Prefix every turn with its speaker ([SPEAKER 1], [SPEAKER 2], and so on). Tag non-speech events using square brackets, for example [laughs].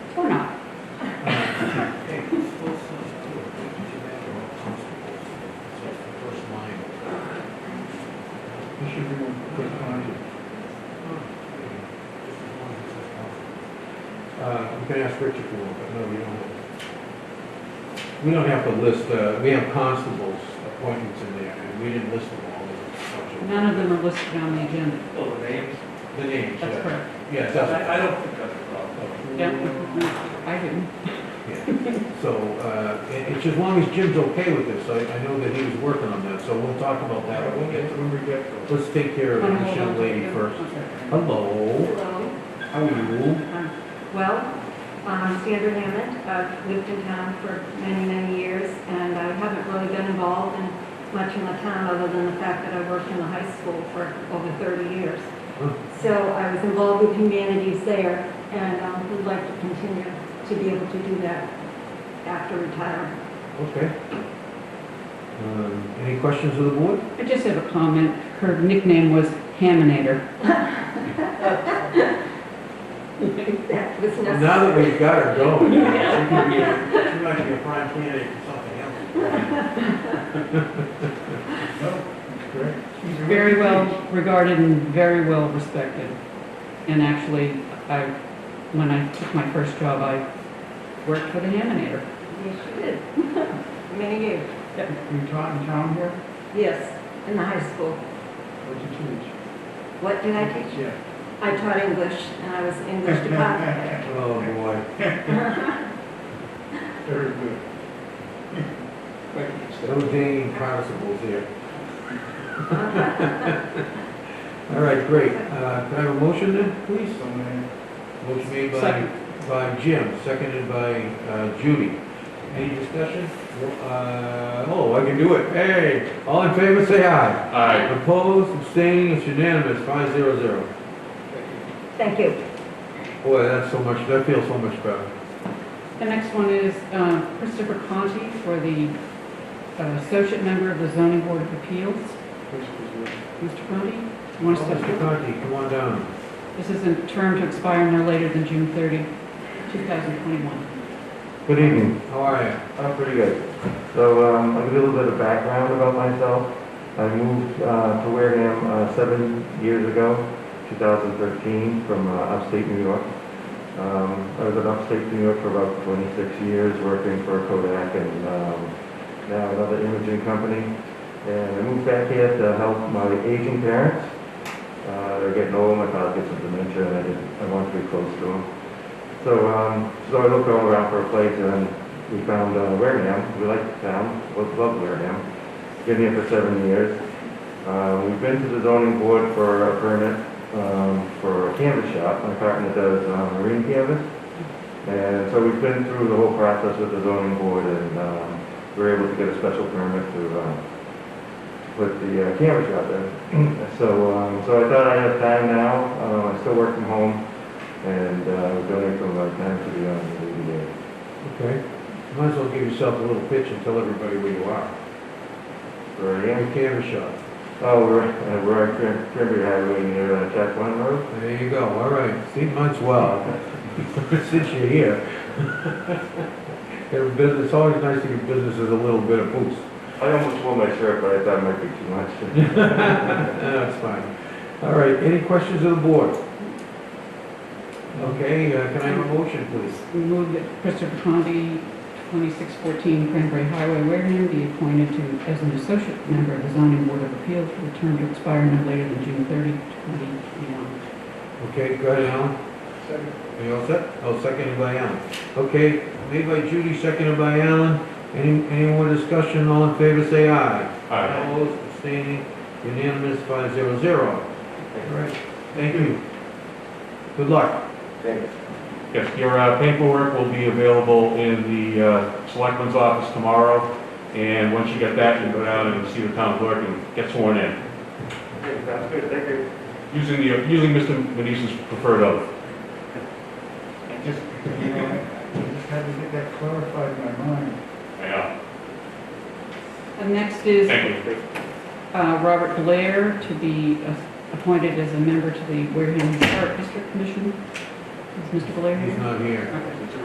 [SPEAKER 1] Uh, you can ask Richard for one, but no, we don't. have- We don't have to list, uh, we have constables appointments in there, and we didn't list them all. there's a bunch
[SPEAKER 2] None of them are listed on the agenda.
[SPEAKER 3] Oh, the names?
[SPEAKER 1] of- The names, yeah.
[SPEAKER 2] That's correct.
[SPEAKER 1] Yeah, it doesn't.
[SPEAKER 3] I, I don't think that's a problem.
[SPEAKER 2] Yeah, I didn't.
[SPEAKER 1] Yeah. So, uh, it- it's as long as Jim's okay with this, I, I know that he was working on that, so we'll talk about that when we get to it.
[SPEAKER 4] When we get to it.
[SPEAKER 1] Let's take care of
[SPEAKER 2] Wanna
[SPEAKER 1] this
[SPEAKER 2] hold on
[SPEAKER 1] young
[SPEAKER 2] to
[SPEAKER 1] lady
[SPEAKER 2] it?
[SPEAKER 1] first.
[SPEAKER 2] Okay.
[SPEAKER 1] Hello,
[SPEAKER 5] Hello,
[SPEAKER 1] how are you?
[SPEAKER 5] um, well, I'm Sandra Hammond. I've lived in town for many, many years, and I haven't really been involved in much in the town other than the fact that I worked in the high school for over 30 years.
[SPEAKER 1] Hmm.
[SPEAKER 5] So I was involved with humanities there, and um, would like to continue to be able to do that after retirement.
[SPEAKER 1] Okay. Um, Any questions of the board?
[SPEAKER 2] I just have a comment. Her nickname was Haminator.
[SPEAKER 5] That was
[SPEAKER 1] Well, Now that
[SPEAKER 5] necessary.
[SPEAKER 1] we've got her
[SPEAKER 2] [laughs]
[SPEAKER 1] going, she could be, a- she might be a prime candidate for something else.
[SPEAKER 4] She's
[SPEAKER 2] Very well regarded and very well respected. And actually, I, when I took my first job, I worked for the Haminator.
[SPEAKER 5] Yes, you did. [laughs] Many years.
[SPEAKER 4] You taught in town here?
[SPEAKER 5] Yes, in the high school.
[SPEAKER 4] What did you teach?
[SPEAKER 5] What did I teach?
[SPEAKER 4] Yeah.
[SPEAKER 5] I taught English, and I was an English department head.
[SPEAKER 1] Oh, boy.
[SPEAKER 4] Very good.
[SPEAKER 1] No dang constables here. [laughs] All right, great. Uh, Can I have a motion then, please?
[SPEAKER 4] So many.
[SPEAKER 1] Motion made by,
[SPEAKER 2] Second.
[SPEAKER 1] by Jim, seconded by uh, Judy. Any discussion? Uh, Oh, I can do it. Hey, all in favor, say aye.
[SPEAKER 3] Aye.
[SPEAKER 1] Opposed, abstaining, it's unanimous, five zero zero.
[SPEAKER 5] Thank you.
[SPEAKER 1] Boy, that's so much, that feels so much better.
[SPEAKER 2] The next one is uh, Christopher Conti for the uh, associate member of the zoning board of appeals.
[SPEAKER 4] Which was good.
[SPEAKER 2] Mr. Conti, you want to step
[SPEAKER 1] Oh, Mr.
[SPEAKER 2] forward?
[SPEAKER 1] Conti, come on down.
[SPEAKER 2] This is a term to expire no later than June 30, 2021.
[SPEAKER 1] Good evening. How are you?
[SPEAKER 6] I'm pretty good. So um, I'll give you a little bit of background about myself. I moved uh, to Wareham uh, seven years ago, 2013, from uh, upstate New York. Um, I was in upstate New York for about 26 years, working for Kodak and um, now another imaging company. And I moved back here to help my aging parents. Uh, They're getting old, my father gets some dementia, and I didn't- I wanted to be close to them. So um, so I looked all around for a place, and we found uh, Wareham. We liked the town, both loved Wareham. Been here for seven years. Uh, we've been to the zoning board for a permit um, for a canvas shop. My partner does uh, marine canvas. And so we've been through the whole process with the zoning board and um, we were able to get a special permit to uh, put the uh, canvas shop in. [clears throat] so, um, so I thought I have time now. Uh, I still work from home and uh, we donate some of our time to the uh, the ZBA.
[SPEAKER 1] Okay. Might as well give yourself a little pitch and tell everybody where you are.
[SPEAKER 6] Where I
[SPEAKER 1] Your
[SPEAKER 6] am?
[SPEAKER 1] camera shot.
[SPEAKER 6] Oh, we're, uh, we're on Cran- Cranberry Highway near uh, Jack One Road.
[SPEAKER 1] There you go. All right. See, mine's well. [laughs] Since you're here. [laughs] Your business, it's always nice to give businesses a little bit of boost.
[SPEAKER 6] I almost wore my shirt, but I thought it might be too much.
[SPEAKER 1] [laughs] That's fine. All right. Any questions of the board? Okay, uh, can I have a motion, please?
[SPEAKER 2] We move that Christopher Conti, 2614 Cranberry Highway, Wareham, be appointed to, as an associate member of the zoning board of appeals for a term to expire no later than June 30, 2021.
[SPEAKER 1] Okay, go ahead, Alan.
[SPEAKER 4] Second.
[SPEAKER 1] Are you all set? Oh, seconded by Alan. Okay, made by Judy, seconded by Alan. Any, any more discussion? All in favor, say aye.
[SPEAKER 3] Aye.
[SPEAKER 1] Opposed, abstaining, unanimous, five zero zero. All right, thank you. Good luck.
[SPEAKER 6] Thanks.
[SPEAKER 3] [laughs] Yes, your uh, paperwork will be available in the uh, selectman's office tomorrow, and once you get that, you go down and see the town clerk and get sworn in,
[SPEAKER 6] Okay, sounds good, thank you.
[SPEAKER 3] using the, using Mr. Manise's preferred oath.
[SPEAKER 4] I just, you know, I I just had to get that clarified in my mind.
[SPEAKER 3] Yeah,
[SPEAKER 2] And next is
[SPEAKER 3] thank you.
[SPEAKER 2] uh, Robert Blair to be uh, appointed as a member to the Wareham Historic District Commission. Is Mr. Blair
[SPEAKER 1] He's
[SPEAKER 2] here?
[SPEAKER 1] not here.
[SPEAKER 2] Okay.